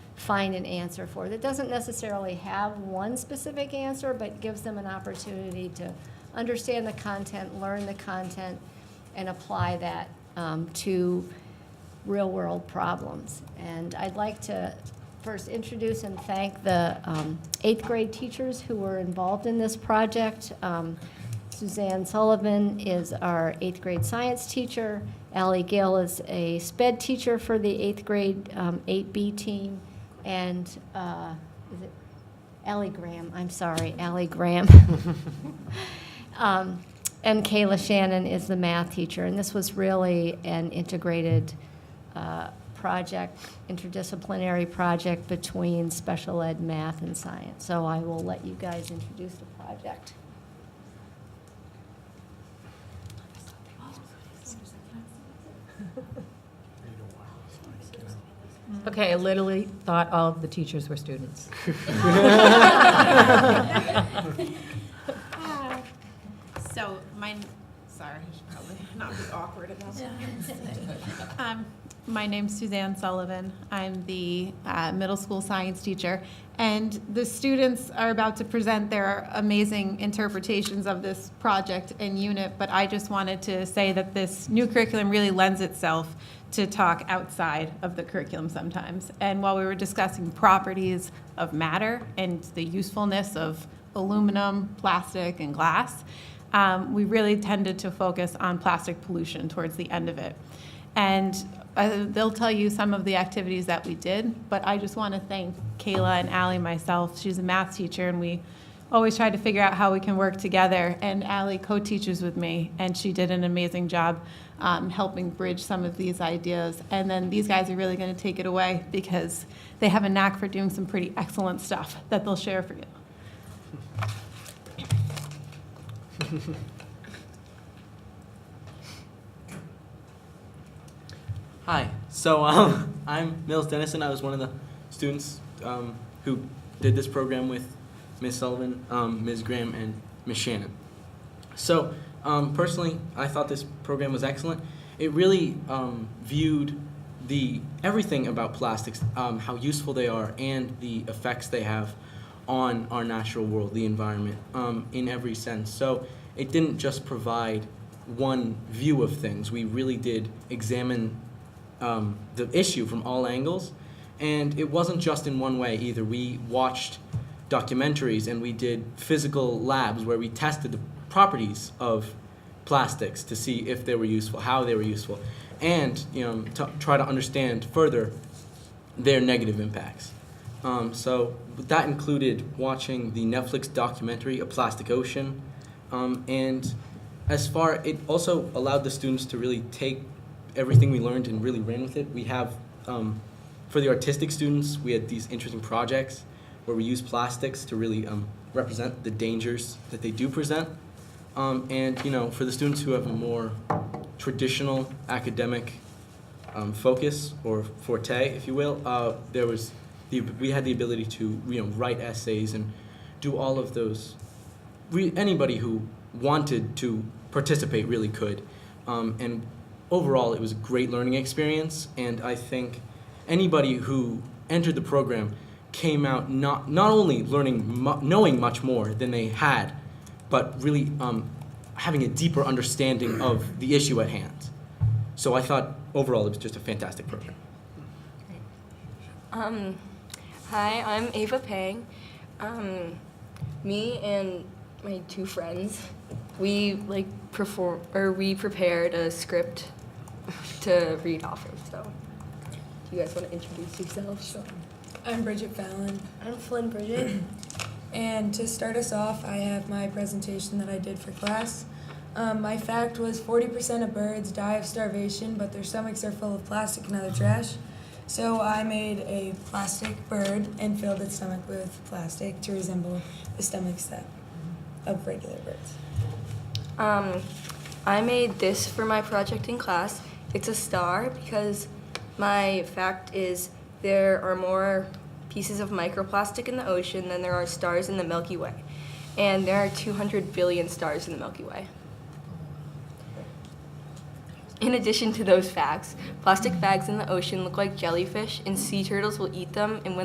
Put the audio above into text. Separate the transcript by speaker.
Speaker 1: find an answer for. That doesn't necessarily have one specific answer, but gives them an opportunity to understand the content, learn the content, and apply that um, to real-world problems. And I'd like to first introduce and thank the um, eighth grade teachers who were involved in this project. Um, Suzanne Sullivan is our eighth grade science teacher. Ally Gill is a sped teacher for the eighth grade um, 8B team. And uh, is it Ally Graham? I'm sorry, Ally Graham. Um, And Kayla Shannon is the math teacher. And this was really an integrated uh, project, interdisciplinary project between special ed, math, and science. So I will let you guys introduce the project.
Speaker 2: Okay, I literally thought all of the teachers were students.
Speaker 3: So my, sorry, I should probably not be awkward about that. Um, My name's Suzanne Sullivan. I'm the uh, middle school science teacher. And the students are about to present their amazing interpretations of this project and unit, but I just wanted to say that this new curriculum really lends itself to talk outside of the curriculum sometimes. And while we were discussing properties of matter and the usefulness of aluminum, plastic, and glass, um, we really tended to focus on plastic pollution towards the end of it. And uh, they'll tell you some of the activities that we did, but I just want to thank Kayla and Ally myself. She's a math teacher, and we always try to figure out how we can work together. And Ally co-teaches with me, and she did an amazing job um, helping bridge some of these ideas. And then these guys are really going to take it away because they have a knack for doing some pretty excellent stuff that they'll share for you.
Speaker 4: Hi. So um, I'm Mills Dennison. I was one of the students um, who did this program with Ms. Sullivan, um, Ms. Graham, and Ms. Shannon. So um, personally, I thought this program was excellent. It really um, viewed the everything about plastics, um, how useful they are, and the effects they have on our natural world, the environment, um, in every sense. So it didn't just provide one view of things. We really did examine um, the issue from all angles. And it wasn't just in one way either. We watched documentaries and we did physical labs where we tested the properties of plastics to see if they were useful, how they were useful, and you know, to try to understand further their negative impacts. Um, so that included watching the Netflix documentary A Plastic Ocean, um, and as far it also allowed the students to really take everything we learned and really ran with it. We have um, for the artistic students, we had these interesting projects where we use plastics to really um, represent the dangers that they do present. Um, and you know, for the students who have a more traditional academic um, focus or forte, if you will, uh, there was the, we had the ability to you know write essays and do all of those. We, anybody who wanted to participate really could, um, and overall it was a great learning experience. And I think anybody who entered the program came out not not only learning mu- knowing much more than they had, but really um, having a deeper understanding of the issue at hand. So I thought overall it was just a fantastic program.
Speaker 5: Um, hi, I'm Ava Pang. Um, me and my two friends, we like perform or we prepared a script to read off of. So, do you guys want to introduce yourselves?
Speaker 6: Sure. I'm Bridget Fallon. I'm Flynn Bridget. And to start us off, I have my presentation that I did for class. Um, my fact was 40% of birds die of starvation, but their stomachs are full of plastic and other trash. So I made a plastic bird and filled its stomach with plastic to resemble the stomachs that of regular birds.
Speaker 5: Um, I made this for my project in class. It's a star because my fact is there are more pieces of microplastic in the ocean than there are stars in the Milky Way. And there are 200 billion stars in the Milky Way. In addition to those facts, plastic bags in the ocean look like jellyfish, and sea turtles will eat them. And when